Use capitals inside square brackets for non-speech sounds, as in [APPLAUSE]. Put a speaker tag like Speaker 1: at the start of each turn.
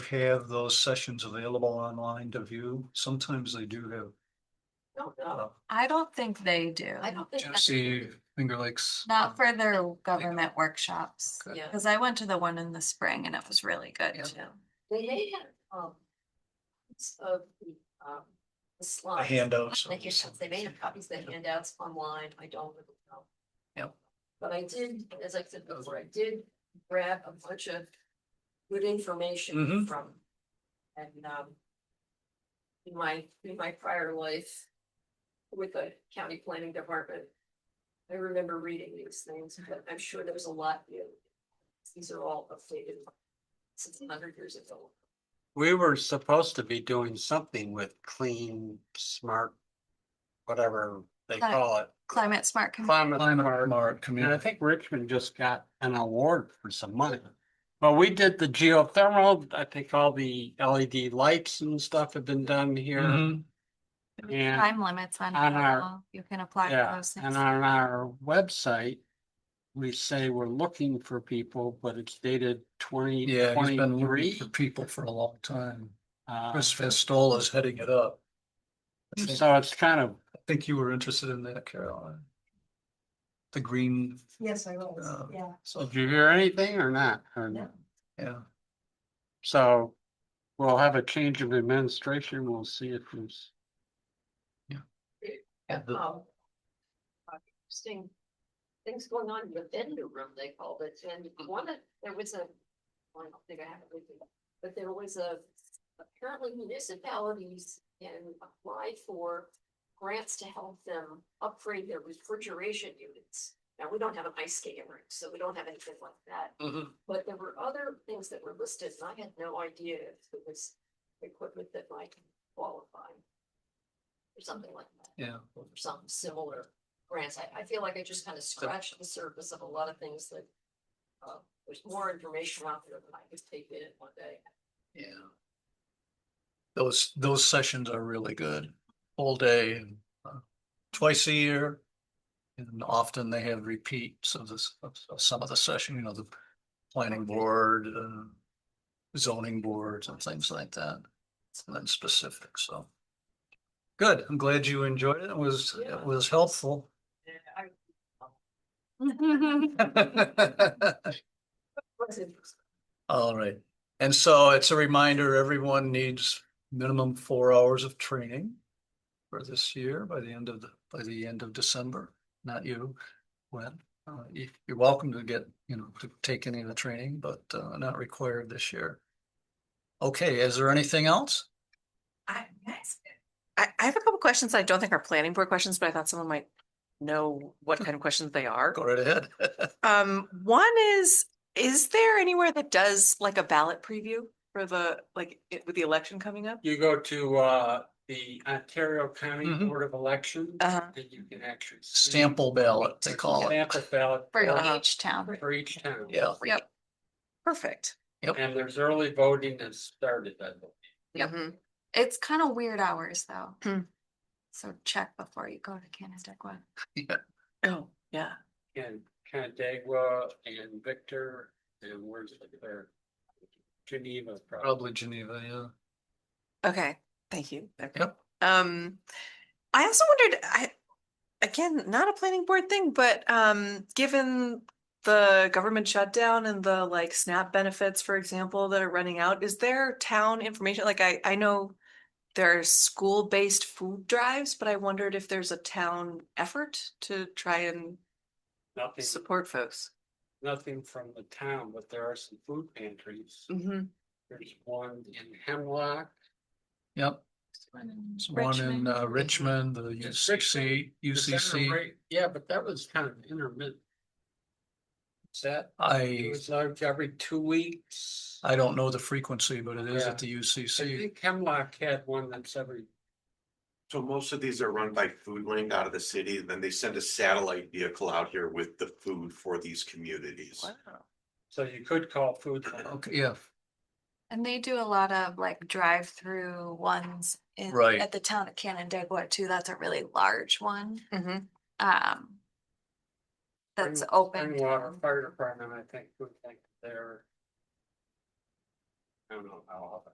Speaker 1: have those sessions available online to view? Sometimes they do have.
Speaker 2: Don't
Speaker 1: uh,
Speaker 2: know.
Speaker 3: I don't think they do.
Speaker 2: I don't think. that's-
Speaker 1: Genesee Finger Lakes.
Speaker 3: Not for their government workshops.
Speaker 1: Okay.
Speaker 2: Yeah,
Speaker 3: Cause I went to the one in the spring and it was really good
Speaker 1: Yeah.
Speaker 3: too.
Speaker 2: they they had, um. it's Of the, um,
Speaker 1: The
Speaker 2: the slides.
Speaker 1: handouts.
Speaker 2: Like you said, they made have copies of the handouts online, I don't really know.
Speaker 1: Yep.
Speaker 2: But I did, as I said before, I did grab a bunch of good information
Speaker 1: Mhm.
Speaker 2: from. And, um. In my, in my prior life. With the county planning department. I remember reading these things, but I'm sure there's a lot new. These are all updated. Since a hundred years ago.
Speaker 4: We were supposed to be doing something with clean, smart, whatever they
Speaker 3: Cli- mm-hmm.
Speaker 4: call it.
Speaker 3: Climate smart. commu-
Speaker 4: Climate
Speaker 1: Climate
Speaker 4: smart.
Speaker 1: smart
Speaker 4: And I
Speaker 1: community.
Speaker 4: think Richmond just got an award for some money. Well, we did the geothermal, I think all the LED lights and stuff have been done here.
Speaker 1: Mhm.
Speaker 4: And,
Speaker 3: Time limits on
Speaker 4: On our-
Speaker 3: how you can apply for
Speaker 4: yeah,
Speaker 3: those things.
Speaker 4: and on our website, we say we're looking for people, but it's dated twenty
Speaker 1: Yeah, he's been looking
Speaker 4: twenty-three.
Speaker 1: for people for a long time.
Speaker 4: Uh,
Speaker 1: Chris Festola is heading it up. I think-
Speaker 4: so it's kind of
Speaker 1: I think you were interested in that, Caroline. The green,
Speaker 5: Yes, I was,
Speaker 1: Oh.
Speaker 5: yeah.
Speaker 4: So did you hear anything or not? Or-
Speaker 5: No.
Speaker 1: yeah.
Speaker 4: So we'll have a change of administration. We'll see if there's.
Speaker 1: Yeah, the-
Speaker 2: um, uh, Interesting things going on in the vendor room, they called it, and one of, there was a, well, I don't think I have it with me, but there was a, apparently municipalities can apply for grants to help them upgrade their refrigeration units. Now, we don't have an ice skating rink, so we don't have anything like that,
Speaker 4: mm-hmm.
Speaker 2: but there were other things that were listed, and I had no idea if it was equipment that might qualify. Or something like that
Speaker 1: Yeah.
Speaker 2: or some similar grants. I, I feel like I just kind of scratched the surface of a lot of things that. Uh, there's more information out there than I could take in in one day.
Speaker 1: Yeah. Those, those sessions are really good, all day and uh, twice a year. And often they have repeats of this, of of some of the session, you know, the planning board, uh, zoning boards and things like that. And then specific, so. Good, I'm glad you enjoyed it. It was,
Speaker 2: Yeah.
Speaker 1: it was helpful.
Speaker 2: And I
Speaker 1: [LAUGHS]
Speaker 2: wasn't,
Speaker 1: All right, and so it's a reminder, everyone needs minimum four hours of training. For this year, by the end of, the by the end of December, not you, when, uh, you, you're welcome to get, you know, to take any of the training, but, uh, not required this year. Okay, is there anything else?
Speaker 5: I, that's
Speaker 6: I, I have a couple questions I don't think are planning board questions, but I thought someone might know what kind of questions they are.
Speaker 1: Go right ahead. [LAUGHS]
Speaker 6: Um, one is, is there anywhere that does like a ballot preview for the, like, it- with the election coming up?
Speaker 4: You go to uh the Ontario County
Speaker 1: Mhm.
Speaker 4: Board of Elections.
Speaker 6: Uh-huh.
Speaker 4: And you can actually. see
Speaker 1: Sample ballot, they call it.
Speaker 4: Sample ballot
Speaker 3: For
Speaker 6: Uh-huh.
Speaker 3: each town.
Speaker 4: for each town.
Speaker 1: Yeah,
Speaker 3: Yep.
Speaker 6: Perfect.
Speaker 4: And there's early voting that started, I believe.
Speaker 3: Yep.
Speaker 6: Mhm.
Speaker 3: It's kind of weird hours
Speaker 6: Hmm.
Speaker 3: though. So check before you go to Canandaigua.
Speaker 6: Oh, yeah.
Speaker 4: And Canandaigua and Victor and where's the there? Geneva.
Speaker 1: probably Geneva, yeah.
Speaker 6: Okay, thank you. Okay.
Speaker 1: Yep.
Speaker 6: Um, I also wondered, I, again, not a planning board thing, but um, given the government shutdown and the like SNAP benefits, for example, that are running out, is there town information? Like I, I know there are school-based food drives, but I wondered if there's a town effort to try and
Speaker 4: Nothing,
Speaker 6: support folks.
Speaker 4: nothing from the town, but there are some food pantries.
Speaker 6: Mm-hmm.
Speaker 4: There's one in Hemlock.
Speaker 1: Yep. There's one in uh, Richmond, the
Speaker 4: Yes,
Speaker 1: UCC,
Speaker 4: Is that a
Speaker 1: UCC.
Speaker 4: rate? Yeah, but that was kind of intermittent. Is that, it
Speaker 1: I,
Speaker 4: was like every two weeks. I
Speaker 1: I don't know the frequency, but it is
Speaker 4: Yeah.
Speaker 1: at the UCC.
Speaker 4: think Hemlock had one that's every,
Speaker 7: So most of these are run by Food Link out of the city, then they send a satellite vehicle out here with the food for these communities.
Speaker 4: so you could call food.
Speaker 1: Okay, yeah,
Speaker 3: And they do a lot of like drive-through ones in,
Speaker 1: Right.
Speaker 3: at the town of Canandaigua too. That's a really large one.
Speaker 6: Mm-hmm.
Speaker 3: Um. That's open.
Speaker 4: Water
Speaker 3: to-
Speaker 4: Fire Department, I think, would think there. I don't know how often.